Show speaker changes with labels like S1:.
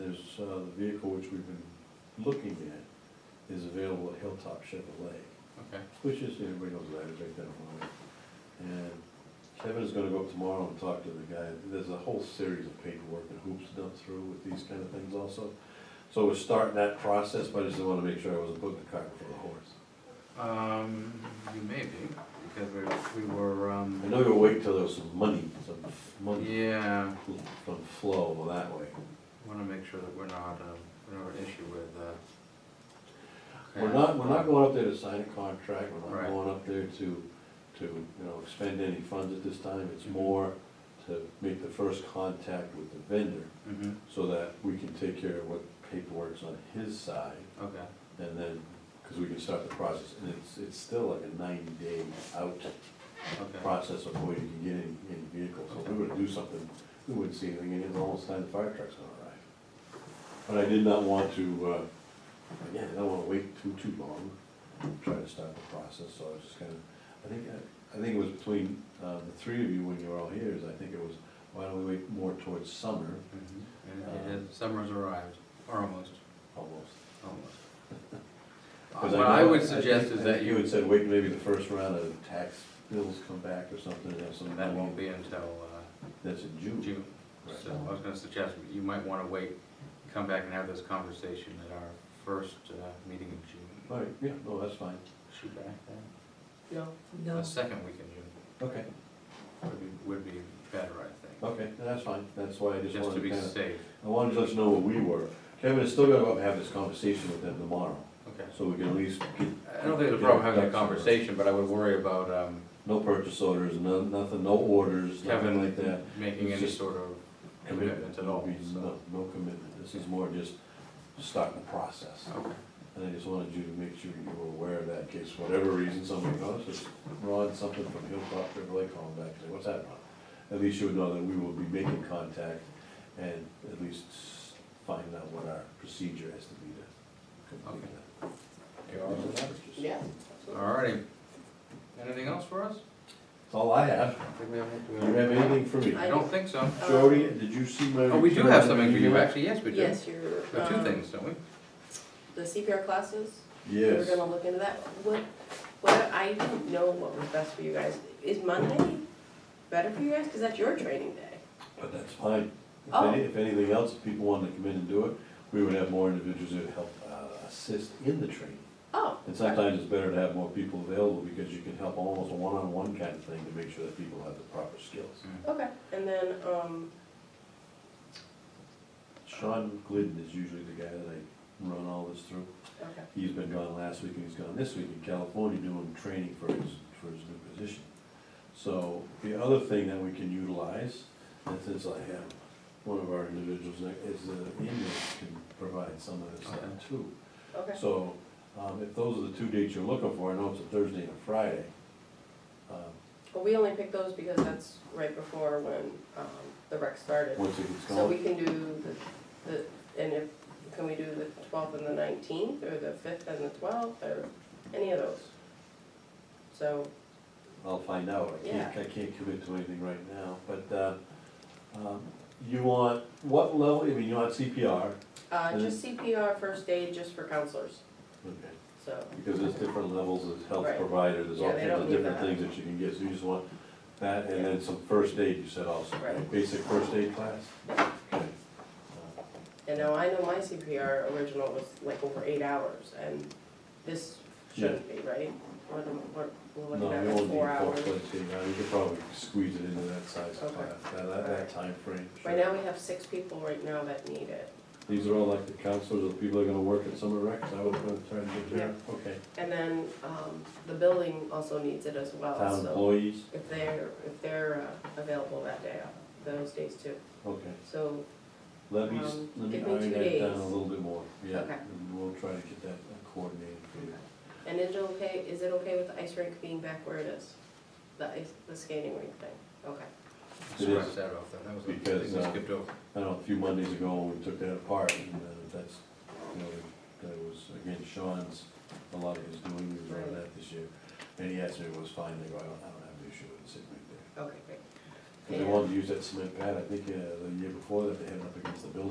S1: is, uh, the vehicle which we've been looking at is available at Hilltop Chevrolet,
S2: Okay,
S1: which is, everybody knows that, it's right down the line. And Kevin's gonna go up tomorrow and talk to the guy, there's a whole series of paperwork and hoops to jump through with these kind of things also. So we're starting that process, but I just wanna make sure I wasn't putting the cart before the horse.
S2: um, you may be, because we're, we were,
S1: I
S2: um,
S1: know you'll wait till there's some money, some money
S2: yeah,
S1: from flow that way.
S2: wanna make sure that we're not, um, we don't have an issue with, uh.
S1: We're not, we're not going up there to sign a contract, we're
S2: Right.
S1: not going up there to, to, you know, expend any funds at this time. It's more to make the first contact with the vendor
S2: hmm
S1: so that we can take care of what paperwork's on his side
S2: okay,
S1: and then, because we can start the process. And it's, it's still like a ninety-day out
S2: okay,
S1: process of where you can get any, any vehicle. So if we were to do something, we wouldn't see anything, and it's almost time the fire truck's gonna arrive. But I did not want to, uh, again, I don't wanna wait too, too long, try to start the process, so I was just kinda, I think, I- I think it was between, uh, the three of you when you were all here, is I think it was, why don't we wait more towards summer,
S2: mhm, and it is, summer's arrived, or almost,
S1: almost?
S2: almost.
S1: 'Cause
S2: Uh, What I
S1: know-
S2: would
S1: think-
S2: suggest
S1: I
S2: is
S1: think
S2: that you,
S1: had said wait maybe the first round of tax bills come back or something, and have some.
S2: that won't be until,
S1: That's in
S2: uh,
S1: June.
S2: June,
S1: Right.
S2: so I was gonna suggest, you might wanna wait, come back and have this conversation at our first, uh, meeting in June.
S1: All right, yeah, no, that's fine.
S2: Shoot back then,
S3: No,
S2: the second week in June.
S1: Okay.
S2: would be, would be better, I think,
S1: Okay, that's fine, that's why I just
S2: just to
S1: wanted to
S2: be
S1: kind of,
S2: safe.
S1: I wanted to let you know where we were. Kevin is still gonna go up and have this conversation with them tomorrow,
S2: Okay.
S1: so we can at least get,
S2: I don't think there's a problem having a conversation, but I would worry about um,
S1: no purchase orders, no, nothing, no orders, nothing like
S2: Kevin
S1: that.
S2: making
S1: It's
S2: any
S1: just
S2: sort of commitment at all, so.
S1: No, no commitment, this is more just starting the process.
S2: Okay.
S1: And I just wanted you to make sure you were aware of that, in case for whatever reason somebody goes, it's Ron, something from Hilltop, Chevrolet, call them back, and say, what's that, Ron? At least you would know that we will be making contact and at least s- find out what our procedure has to be to complete
S2: Okay.
S1: that.
S2: You all right with that?
S1: Yeah.
S2: All righty. Anything else for us?
S1: That's all I have.
S2: I think we have
S1: Do
S2: anything
S1: you have anything for me?
S2: I don't think so.
S3: uh,
S1: Jody, did you see my?
S2: Oh, we do have something for you, actually, yes, we do.
S3: yes, you're,
S2: We have two
S3: um,
S2: things, don't we?
S3: the CPR classes, we're
S1: Yes.
S3: gonna look into that. What, what, I don't know what was best for you guys. Is Monday better for you guys? Cause that's your training day.
S1: But that's fine. If
S3: Oh.
S1: any, if anything else, if people wanted to come in and do it, we would have more individuals who would help, uh, assist in the training.
S3: Oh,
S1: And sometimes it's better to have more people available because you can help almost a one-on-one kind of thing to make sure that people have the proper skills.
S3: okay. And then, um,
S1: Sean Glidden is usually the guy that I run all this through.
S3: okay,
S1: He's been gone last week and he's gone this week in California doing training for his, for his new position. So the other thing that we can utilize, and since I have one of our individuals, that is the Indians can provide some of this stuff
S2: Okay.
S1: too.
S3: okay.
S1: So, um, if those are the two dates you're looking for, I know it's a Thursday and a Friday. um,
S3: Well, we only picked those because that's right before when, um, the rec started.
S1: Once it gets
S3: So we
S1: going,
S3: can do the, the, and if, can we do the twelfth and the nineteenth, or the fifth and the twelfth, or any of those? So,
S1: I'll find out, I can't, I can't commit to anything right now, but, uh, um, you want, what level, I mean, you want CPR,
S3: uh, just CPR first aid just for counselors,
S1: okay,
S3: so,
S1: because there's different levels of health
S3: Right.
S1: provider, there's all
S3: Yeah, they
S1: kinds of
S3: don't need
S1: different
S3: that.
S1: things that you can get, so you just want that, and then some first aid, you said also,
S3: Right.
S1: right? basic first aid class? Okay. Uh,
S3: and now I know my CPR original was like over eight hours, and this shouldn't be, right? What am- what- we're
S1: No,
S3: looking
S1: you
S3: at like
S1: won't need
S3: four
S1: four
S3: hours.
S1: plates, you know, you could probably squeeze it into that size of
S3: Okay.
S1: class, that, that, that timeframe.
S3: Right now, we have six people right now that need it,
S1: These are all like the counselors, the people that are gonna work at summer recs, I would put, try to get there, okay.
S3: and then, um, the building also needs it as well,
S1: Town
S3: so.
S1: employees,
S3: if they're, if they're uh, available that day, those days too.
S1: okay,
S3: So,
S1: let me, s-
S3: Um,
S1: let me
S3: give me
S1: iron
S3: two
S1: that down a
S3: days.
S1: little bit more, yeah,
S3: Okay.
S1: and we'll try to get that coordinated for you.
S3: and is it okay, is it okay with the ice rink being back where it is? The ice, the skating rink thing, okay.
S2: Scratch that off then, that was a thing
S1: Because,
S2: we
S1: uh,
S2: skipped over.
S1: I know, a few Mondays ago, we took that apart, and uh, that's, you know, that was, again, Sean's, a lot of his doing, he was on that this year. And he asked me if it was fine, I go, I don't, I don't have an issue with it sitting right there.
S3: Okay, great.
S1: Because they wanted to use that cement pad, I think, uh, the year before that, they had it up against the building.